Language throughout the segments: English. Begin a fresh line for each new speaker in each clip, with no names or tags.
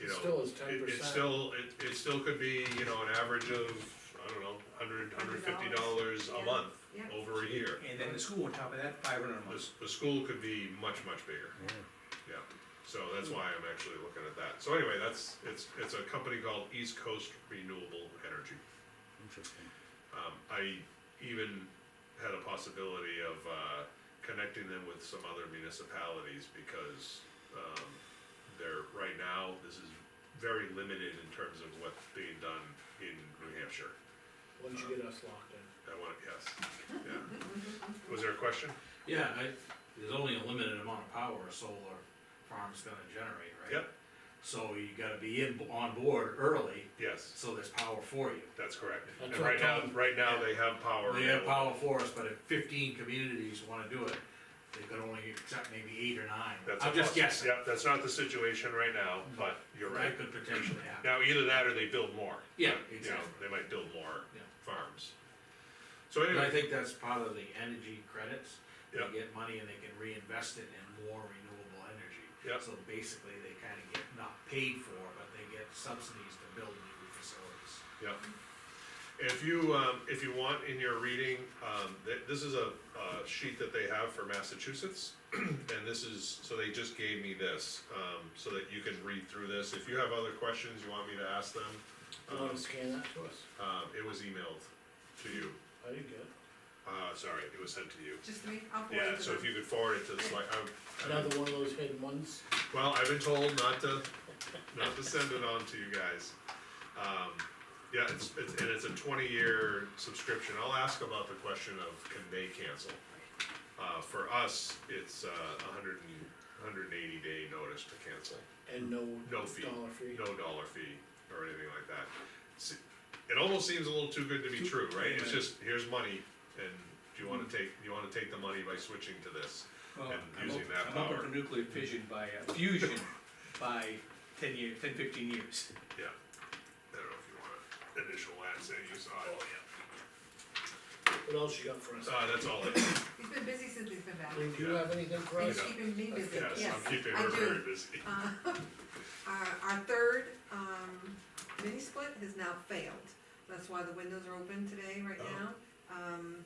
you know.
Still is
it- It
10%.
still, it, it still could be, you know, an average of, I don't know, hundred, hundred fifty dollars a
Yeah,
month,
yeah.
over a year.
And then the school on top of that, five hundred a
The,
month.
s- the school could be much, much bigger. Yeah, so that's why I'm actually looking at that. So anyway, that's, it's, it's a company called East Coast Renewable Energy.
Interesting.
Um, I even had a possibility of, uh, connecting them with some other municipalities because, um, they're, right now, this is very limited in terms of what's being done in New Hampshire.
once you get us locked in.
I want, yes, yeah. Was there a question?
Yeah, I, there's only a limited amount of power a solar farm's gonna generate, right?
Yep.
So you gotta be in, on board early,
Yes,
so there's power for you.
that's correct.
That's
And
what
right now,
Tom-
right now, they have power.
They have
available.
power for us, but if fifteen communities wanna do it, they could only accept maybe eight or nine.
That's
I'm
a
just
possi-
guessing, Mm-hmm.
Yep, that's not the situation right now, but you're right.
that could potentially happen.
Now, either that or they build more.
Yeah,
You know,
exactly.
They might build more
Yeah.
farms. So
And I
anyway,
think that's part of the energy credits. They
Yeah.
get money and they can reinvest it in more renewable energy.
Yeah.
So basically, they kinda get not paid for, but they get subsidies to build new facilities.
yeah. If you, um, if you want in your reading, um, th- this is a, uh sheet that they have for Massachusetts. And this is, so they just gave me this, um, so that you can read through this. If you have other questions you want me to ask them,
You
um,
wanna scan that to us?
Um,
uh, it was emailed to you.
I didn't get it.
Uh, sorry, it was sent to you.
Just me, I'll forward
Yeah,
it
so if you could forward it to the select, I, I,
Another one of those hidden ones?
well, I've been told not to, not to send it on to you guys. Um, yeah, it's, it's, and it's a twenty-year subscription, I'll ask about the question of can they cancel? Uh, for us, it's uh, a hundred and, hundred and eighty day notice to cancel,
And no
No fee.
dollar fee?
no dollar fee or anything like that. Se- It almost seems a little too good to be true, right? It's just, here's money, and do you wanna
Hmm.
take, you wanna take the money by switching to this?
Well,
And
I'm
using
op-
that
I'm
power.
open to nuclear fission by, uh, fusion by ten year, ten, fifteen years.
Yeah, I don't know if you wanna initial that, say you saw it.
What else you got for us?
Uh, that's all I, yes,
He's been busy since he's been back.
Do you have anything for us?
He's keeping me busy,
I'm
yes, I do.
keeping her very busy.
Uh, Our, our third, um, mini split has now failed, that's why the windows are open today, right
Oh.
now. Um,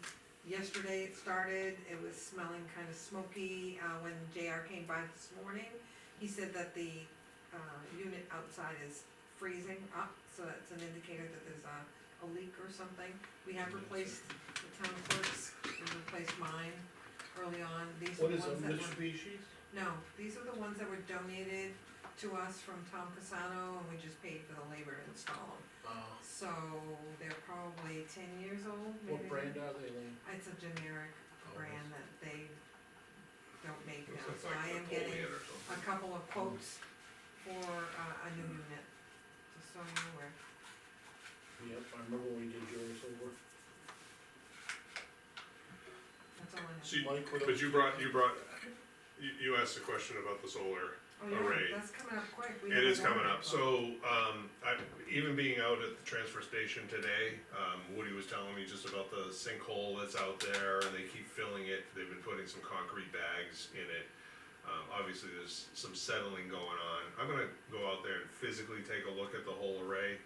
yesterday it started, it was smelling kinda smoky, uh, when JR came by this morning, he said that the, uh, unit outside is freezing up, so that's an indicator that there's a, a leak or something. We have replaced the town clerks, we replaced mine early on, these are
What
the
is
ones
a
that were.
Mitsubishi's?
No, these are the ones that were donated to us from Tom Casano, and we just paid for the labor to install them.
Uh,
Oh.
So they're probably ten years old, maybe.
what brand are they, Lean?
It's a generic
Oh,
brand that they don't make
Looks
now, so
like Mm.
I am
Napoleon
getting
or something.
a couple of quotes for uh, a new unit, just so you're aware.
Yep, I remember when we did yours over.
That's all I have.
So you-
Mike, what
But
else?
you brought, you brought, you, you asked a question about the solar,
Oh, yeah,
Alright.
that's coming up quick. We
it
haven't
is
done
coming
that
up,
yet.
so, um, I, even being out at the transfer station today, um, Woody was telling me just about the sinkhole that's out there, and they keep filling it, they've been putting some concrete bags in it. Um, obviously, there's some settling going on, I'm gonna go out there and physically take a look at the whole array.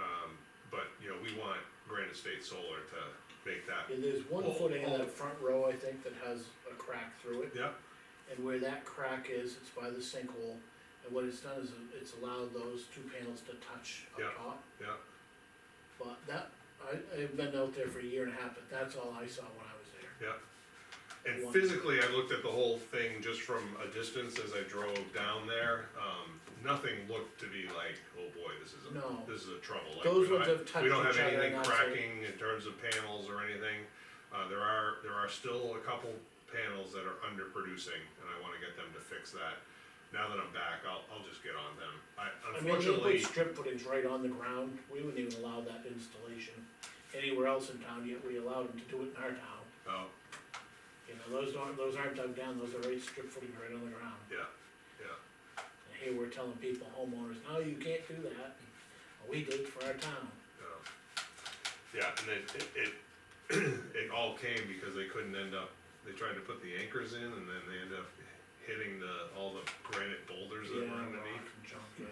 Um, but, you know, we want Grand Estate Solar to make that,
Yeah, there's one
Oh,
footing in
oh.
that front row, I think, that has a crack through it,
yeah,
and where that crack is, it's by the sinkhole. And what it's done is it's allowed those two panels to touch
Yeah.
up top,
yeah,
but that, I, I've been out there for a year and a half, but that's all I saw when I was there.
Yeah. And physically, I looked at the whole thing just from a distance as I drove down there, um, nothing looked to be like, oh boy, this is
No.
a, this is a trouble. Like,
Those
we don't
ones
have-
have touched
We don't have
each other
anything
and that's it.
cracking in terms of panels or anything, uh, there are, there are still a couple panels that are underproducing, and I wanna get them to fix that. Now that I'm back, I'll, I'll just get on them, I
I mean, they put
unfortunately,
strip footage right on the ground, we wouldn't even allow that installation anywhere else in town, yet we allowed them to do it in our town.
oh,
You know, those aren't, those aren't dug down, those are right strip footage right on the ground.
yeah, yeah.
And here we're telling people, homeowners, no, you can't do that, Well, we did it for our town.
Um, Yeah, and it, it, it, it all came because they couldn't end up, they tried to put the anchors in and then they ended up hitting the, all the granite boulders that
Yeah,
were
rock
underneath.
and junk, yeah.